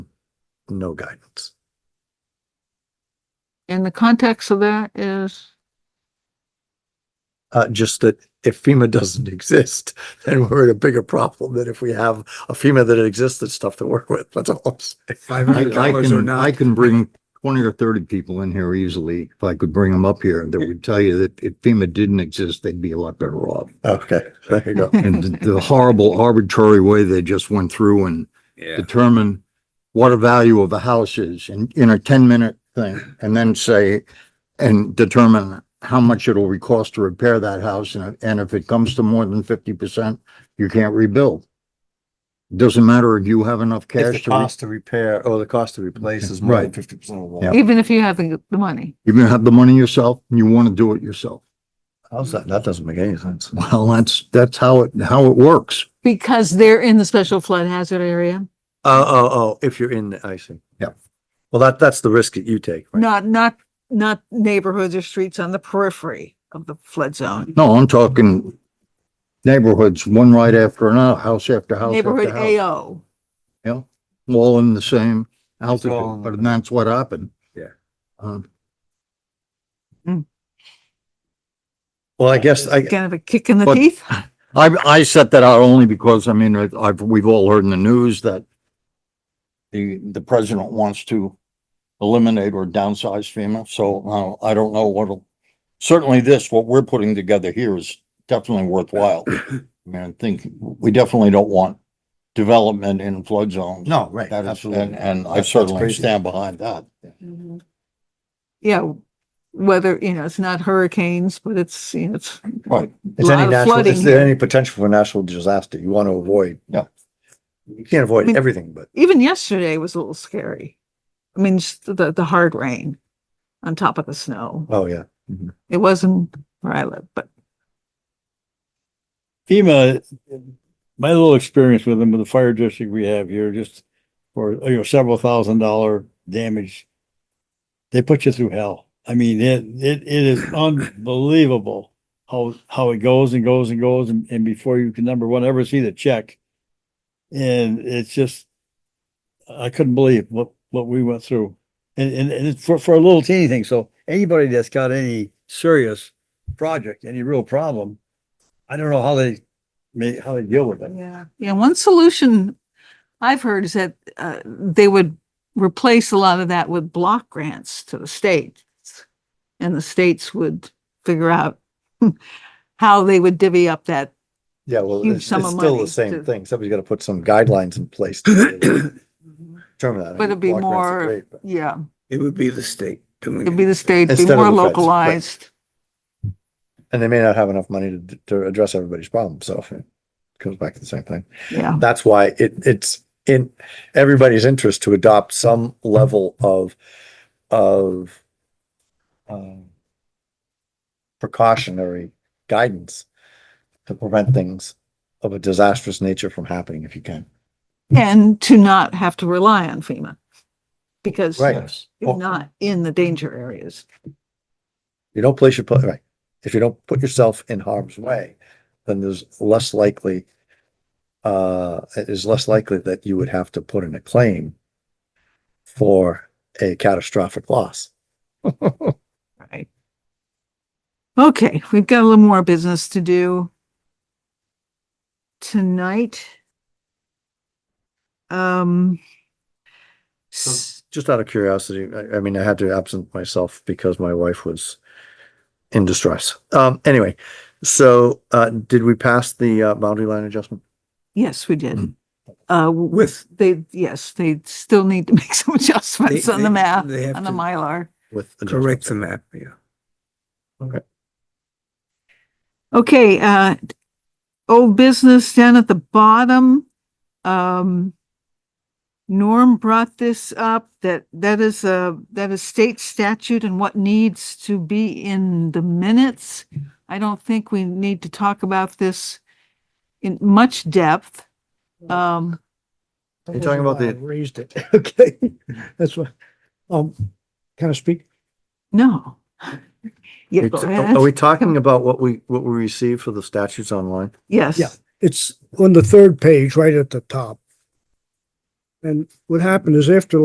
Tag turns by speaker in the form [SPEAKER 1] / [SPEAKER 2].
[SPEAKER 1] no guidance.
[SPEAKER 2] And the context of that is,
[SPEAKER 1] Uh, just that if FEMA doesn't exist, then we're in a bigger problem than if we have a FEMA that exists, that's stuff to work with. That's all I'm saying.
[SPEAKER 3] Five
[SPEAKER 4] I,
[SPEAKER 3] hundred
[SPEAKER 4] I
[SPEAKER 3] dollars or
[SPEAKER 4] can,
[SPEAKER 3] not.
[SPEAKER 4] I can bring twenty or thirty people in here easily. If I could bring them up here, that would tell you that if FEMA didn't exist, they'd be a lot better off.
[SPEAKER 1] Okay, there you go.
[SPEAKER 4] And the- the horrible arbitrary way they just went through and
[SPEAKER 3] Yeah.
[SPEAKER 4] determine what a value of a house is in, in a ten minute thing. And then say, and determine how much it'll re- cost to repair that house. And, and if it comes to more than fifty percent, you can't rebuild. Doesn't matter if you have enough
[SPEAKER 1] If the
[SPEAKER 4] cash to, re-
[SPEAKER 1] cost to repair or the cost to replace is more than
[SPEAKER 4] Right.
[SPEAKER 1] fifty percent of the
[SPEAKER 4] Yeah.
[SPEAKER 1] wall.
[SPEAKER 2] even if you have the, the money.
[SPEAKER 4] you're gonna have the money yourself and you want to do it yourself.
[SPEAKER 1] How's that? That doesn't make any sense.
[SPEAKER 4] Well, that's, that's how it, how it works.
[SPEAKER 2] Because they're in the special flood hazard area,
[SPEAKER 1] Oh, oh, oh, if you're in, the I see.
[SPEAKER 4] Yeah.
[SPEAKER 1] Well, that, that's the risk that you take, right?
[SPEAKER 2] not, not, not neighborhoods or streets on the periphery of the flood zone.
[SPEAKER 4] No, I'm talking neighborhoods, one right after another, house after house
[SPEAKER 2] Neighborhood
[SPEAKER 4] after house.
[SPEAKER 2] AO.
[SPEAKER 4] Yeah, all in the same
[SPEAKER 1] all in
[SPEAKER 4] altitude,
[SPEAKER 1] the-
[SPEAKER 4] but that's what happened.
[SPEAKER 1] Yeah.
[SPEAKER 4] Um,
[SPEAKER 1] Well, I guess, I,
[SPEAKER 2] Kind of a kick in the
[SPEAKER 4] But-
[SPEAKER 2] teeth.
[SPEAKER 4] I, I set that out only because, I mean, I've- I've, we've all heard in the news that the, the president wants to eliminate or downsize FEMA, so uh, I don't know what'll, certainly this, what we're putting together here is definitely worthwhile. I mean, I think we definitely don't want development in flood zones.
[SPEAKER 1] no, right,
[SPEAKER 4] That is,
[SPEAKER 1] absolutely.
[SPEAKER 4] and, and I
[SPEAKER 1] That's
[SPEAKER 4] certainly
[SPEAKER 1] crazy.
[SPEAKER 4] stand behind that.
[SPEAKER 2] Yeah, whether, you know, it's not hurricanes, but it's, you know, it's,
[SPEAKER 4] Right.
[SPEAKER 1] Is
[SPEAKER 2] lot
[SPEAKER 1] any
[SPEAKER 2] of
[SPEAKER 1] natural, is
[SPEAKER 2] flooding.
[SPEAKER 1] there any potential for natural disaster you want to avoid?
[SPEAKER 4] Yeah.
[SPEAKER 1] You can't
[SPEAKER 2] I
[SPEAKER 1] avoid
[SPEAKER 2] mean-
[SPEAKER 1] everything, but
[SPEAKER 2] even yesterday was a little scary. I mean, just the, the hard rain on top of the snow.
[SPEAKER 1] oh yeah,
[SPEAKER 2] It wasn't where I live, but
[SPEAKER 5] FEMA, my little experience with them, with the fire district we have here, just for, you know, several thousand dollar damage. They put you through hell. I mean, it, it, it is unbelievable how, how it goes and goes and goes and, and before you can number one ever see the check. And it's just, I couldn't believe what, what we went through. And, and, and it's for, for a little teeny thing. So anybody that's got any serious project, any real problem, I don't know how they may, how they deal with it.
[SPEAKER 2] Yeah, yeah, one solution I've heard is that uh, they would replace a lot of that with block grants to the states. And the states would figure out how they would divvy up that,
[SPEAKER 1] yeah, well,
[SPEAKER 2] Huge
[SPEAKER 1] it's,
[SPEAKER 2] sum
[SPEAKER 1] it's
[SPEAKER 2] of
[SPEAKER 1] still
[SPEAKER 2] money
[SPEAKER 1] the same
[SPEAKER 2] to-
[SPEAKER 1] thing. Somebody's got to put some guidelines in place. to Determine that. I
[SPEAKER 2] But it'd be
[SPEAKER 1] mean, block grants are
[SPEAKER 2] more-
[SPEAKER 1] great, but-
[SPEAKER 2] yeah,
[SPEAKER 3] It would be the state doing
[SPEAKER 2] it'd be the state, be
[SPEAKER 1] Instead of
[SPEAKER 2] more
[SPEAKER 1] the feds, right.
[SPEAKER 2] localized.
[SPEAKER 1] And they may not have enough money to, to address everybody's problem, so it comes back to the same thing.
[SPEAKER 2] Yeah,
[SPEAKER 1] That's why it, it's in everybody's interest to adopt some level of, of um, precautionary guidance to prevent things of a disastrous nature from happening if you can.
[SPEAKER 2] and to not have to rely on FEMA. Because
[SPEAKER 1] Right.
[SPEAKER 2] you're not in the danger areas.
[SPEAKER 1] You don't place your, pla- right. If you don't put yourself in harm's way, then there's less likely, uh, it is less likely that you would have to put in a claim for a catastrophic loss.
[SPEAKER 2] Right. Okay, we've got a little more business to do tonight. Um. s-
[SPEAKER 1] just out of curiosity, I, I mean, I had to absent myself because my wife was in distress. Um, anyway, so, uh, did we pass the, uh, boundary line adjustment?
[SPEAKER 2] Yes, we
[SPEAKER 3] Hmm.
[SPEAKER 2] did. Uh, w-
[SPEAKER 3] With.
[SPEAKER 2] they, yes, they still need to make some adjustments on the map,
[SPEAKER 3] They have
[SPEAKER 2] on the
[SPEAKER 3] to
[SPEAKER 2] Mylar.
[SPEAKER 1] With adjustment?
[SPEAKER 3] correct the map, yeah.
[SPEAKER 2] Okay, uh, old business down at the bottom. Um, Norm brought this up, that, that is a, that is state statute and what needs to be in the minutes. I don't think we need to talk about this in much depth. Um,
[SPEAKER 1] You're talking about the-
[SPEAKER 6] Raised it, okay, that's what, um, can I speak?
[SPEAKER 2] no. Yeah, go ahead.
[SPEAKER 1] Are oh, we talking about what we, what we received for the statutes online?
[SPEAKER 6] Yeah.
[SPEAKER 2] Yes,
[SPEAKER 6] It's on the third page, right at the top. And what happened is after